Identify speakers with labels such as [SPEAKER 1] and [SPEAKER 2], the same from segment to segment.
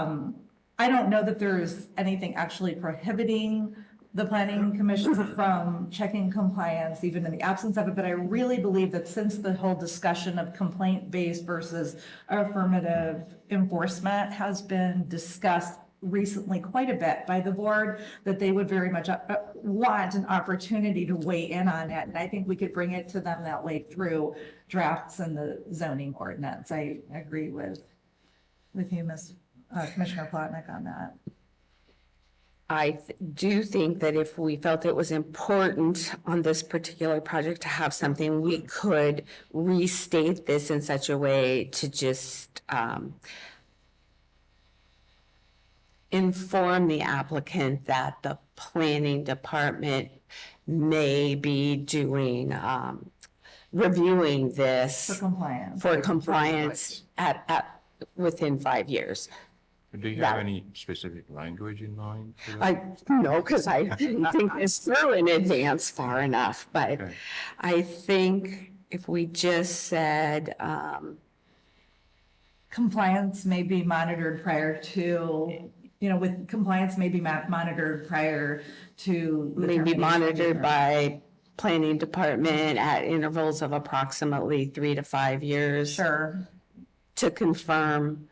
[SPEAKER 1] Um, I don't know that there's anything actually prohibiting the planning commission from checking compliance even in the absence of it, but I really believe that since the whole discussion of complaint-based versus affirmative enforcement has been discussed recently quite a bit by the board, that they would very much uh, uh, want an opportunity to weigh in on that. And I think we could bring it to them that way through drafts in the zoning ordinance. I agree with, with you, Ms. uh, Commissioner Plotnick on that.
[SPEAKER 2] I th- do think that if we felt it was important on this particular project to have something, we could restate this in such a way to just um, inform the applicant that the planning department may be doing, um, reviewing
[SPEAKER 1] For
[SPEAKER 2] this
[SPEAKER 1] compliance.
[SPEAKER 2] for compliance at, at, within five years.
[SPEAKER 3] Do you
[SPEAKER 2] that-
[SPEAKER 3] have any specific language in mind? for that?
[SPEAKER 2] I,
[SPEAKER 1] Oh,
[SPEAKER 2] no, because I didn't think this through in advance far enough, but
[SPEAKER 3] Okay.
[SPEAKER 2] I think if we just said, um,
[SPEAKER 1] Compliance may be monitored prior to, you know, with, compliance may be ma- monitored prior to. the
[SPEAKER 2] may be
[SPEAKER 1] termination.
[SPEAKER 2] monitored by planning department at intervals of approximately three to five years
[SPEAKER 1] Sure,
[SPEAKER 2] to confirm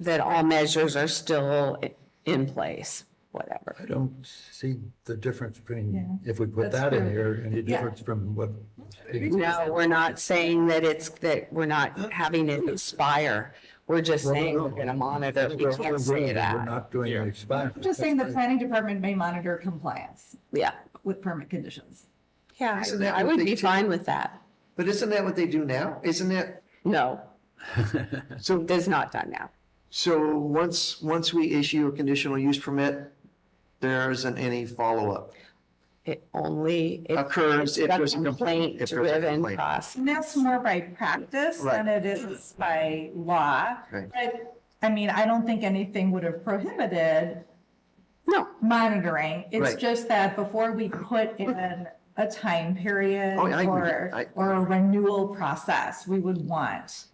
[SPEAKER 2] that all measures are still i- in place, whatever.
[SPEAKER 4] I don't see the difference between,
[SPEAKER 1] Yeah.
[SPEAKER 4] if we put
[SPEAKER 1] That's
[SPEAKER 4] that in
[SPEAKER 1] true.
[SPEAKER 4] here, any
[SPEAKER 1] Yeah.
[SPEAKER 4] difference from what.
[SPEAKER 2] No, we're not saying that it's, that we're not having it expire. We're just saying we're gonna monitor. We can't say
[SPEAKER 4] We're
[SPEAKER 2] that.
[SPEAKER 4] not doing
[SPEAKER 3] Yeah.
[SPEAKER 4] an experiment.
[SPEAKER 1] just saying the planning department may monitor compliance
[SPEAKER 2] Yeah.
[SPEAKER 1] with permit conditions.
[SPEAKER 2] Yeah,
[SPEAKER 5] So that
[SPEAKER 2] I
[SPEAKER 5] would
[SPEAKER 2] would
[SPEAKER 5] be
[SPEAKER 2] be fine with that.
[SPEAKER 5] But isn't that what they do now? Isn't that,
[SPEAKER 2] No,
[SPEAKER 5] so,
[SPEAKER 2] it is not done now.
[SPEAKER 5] so once, once we issue a conditional use permit, there isn't any follow-up.
[SPEAKER 2] It only. it-
[SPEAKER 5] Occurs if
[SPEAKER 2] it's
[SPEAKER 5] there's a complaint, if there's a
[SPEAKER 2] Complaint-driven
[SPEAKER 5] complaint.
[SPEAKER 2] process.
[SPEAKER 1] And that's more by practice than it is by law.
[SPEAKER 5] Right.
[SPEAKER 1] But, I mean, I don't think anything would have prohibited
[SPEAKER 2] No,
[SPEAKER 1] monitoring. It's
[SPEAKER 5] Right.
[SPEAKER 1] just that before we put in a time period
[SPEAKER 5] Oh, I agree.
[SPEAKER 1] or,
[SPEAKER 5] I-
[SPEAKER 1] or a renewal process, we would want.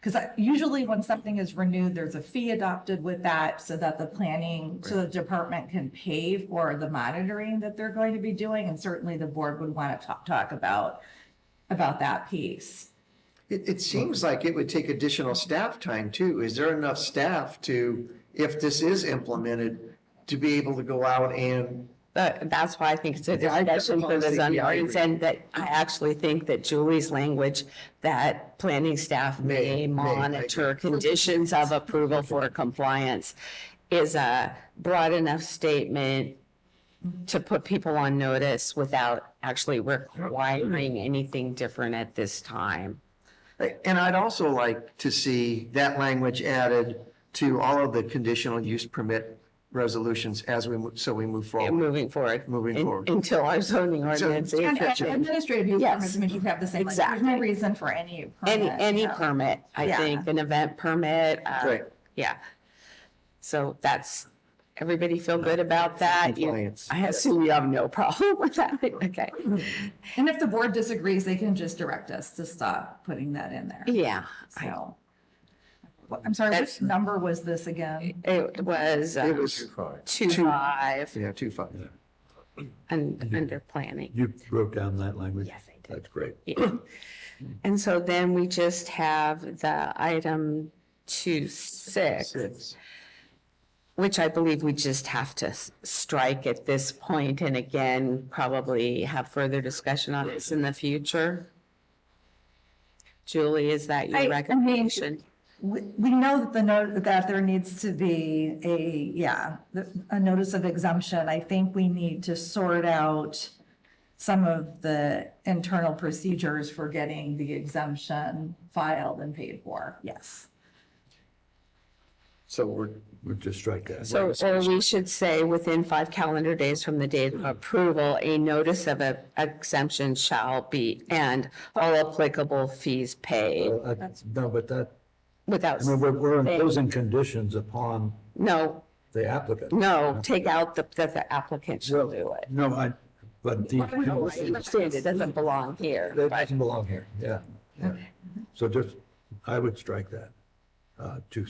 [SPEAKER 1] Because usually when something is renewed, there's a fee adopted with that so that the planning, so the department can pay for the monitoring that they're going to be doing. And certainly the board would want to talk, talk about, about that piece.
[SPEAKER 5] It, it seems like it would take additional staff time too. Is there enough staff to, if this is implemented, to be able to go out and,
[SPEAKER 2] but that's why I think it's a
[SPEAKER 5] Yeah, I-
[SPEAKER 2] discussion for the
[SPEAKER 5] honestly,
[SPEAKER 2] zoning
[SPEAKER 5] yeah, I
[SPEAKER 2] ordinance
[SPEAKER 5] agree.
[SPEAKER 2] and that I actually think that Julie's language that planning staff may
[SPEAKER 5] May- may, I
[SPEAKER 2] monitor conditions of approval for compliance is a broad enough statement to put people on notice without actually requiring anything different at this time.
[SPEAKER 5] and I'd also like to see that language added to all of the conditional use permit resolutions as we, mo- so we move forward.
[SPEAKER 2] moving forward.
[SPEAKER 5] Oh. Moving
[SPEAKER 2] in-
[SPEAKER 5] forward.
[SPEAKER 2] Until our zoning ordinance. is
[SPEAKER 1] And
[SPEAKER 2] changed.
[SPEAKER 1] administrative use
[SPEAKER 2] Yes.
[SPEAKER 1] permits, I mean, you have the same, like, there's no
[SPEAKER 2] Exactly.
[SPEAKER 1] reason for any.
[SPEAKER 2] Any,
[SPEAKER 1] permit,
[SPEAKER 2] any
[SPEAKER 1] yeah.
[SPEAKER 2] permit, I
[SPEAKER 1] Yeah.
[SPEAKER 2] think, an event permit. uh,
[SPEAKER 5] Right.
[SPEAKER 2] Yeah. So that's, everybody feel good about that? You-
[SPEAKER 5] Compliance.
[SPEAKER 2] I assume you have no problem with that. Okay.
[SPEAKER 1] And if the board disagrees, they can just direct us to stop putting that in there.
[SPEAKER 2] Yeah. I-
[SPEAKER 1] So. What- I'm sorry, which
[SPEAKER 2] That's-
[SPEAKER 1] number was this again?
[SPEAKER 2] It was um,
[SPEAKER 5] It was,
[SPEAKER 2] two five
[SPEAKER 5] yeah, two five.
[SPEAKER 2] and under planning.
[SPEAKER 4] You wrote down that language?
[SPEAKER 2] Yes, I did.
[SPEAKER 4] That's great.
[SPEAKER 2] Yeah. And so then we just have the item two six.
[SPEAKER 5] Six.
[SPEAKER 2] Which I believe we just have to s- strike at this point, and again, probably have further discussion on this in the future. Julie, is
[SPEAKER 1] I- I
[SPEAKER 2] that your
[SPEAKER 1] mean-
[SPEAKER 2] recommendation?
[SPEAKER 1] We, we know that the note, that there needs to be a, yeah, the- a notice of exemption. I think we need to sort out some of the internal procedures for getting the exemption filed and paid for. Yes.
[SPEAKER 5] So we're,
[SPEAKER 4] We'll just strike that.
[SPEAKER 2] So, or we should say, within five calendar days from the date of approval, a notice of a- exemption shall be, and all applicable fees paid
[SPEAKER 4] Well, I- No, but that,
[SPEAKER 2] without,
[SPEAKER 4] I mean, we're, we're imposing conditions upon
[SPEAKER 2] no,
[SPEAKER 4] the applicant.
[SPEAKER 2] no, take out the, that the applicant shall do it.
[SPEAKER 4] No, I, but the.
[SPEAKER 2] No, I understand it doesn't belong here.
[SPEAKER 4] That doesn't belong here, yeah, yeah. So just, I would strike that. uh, to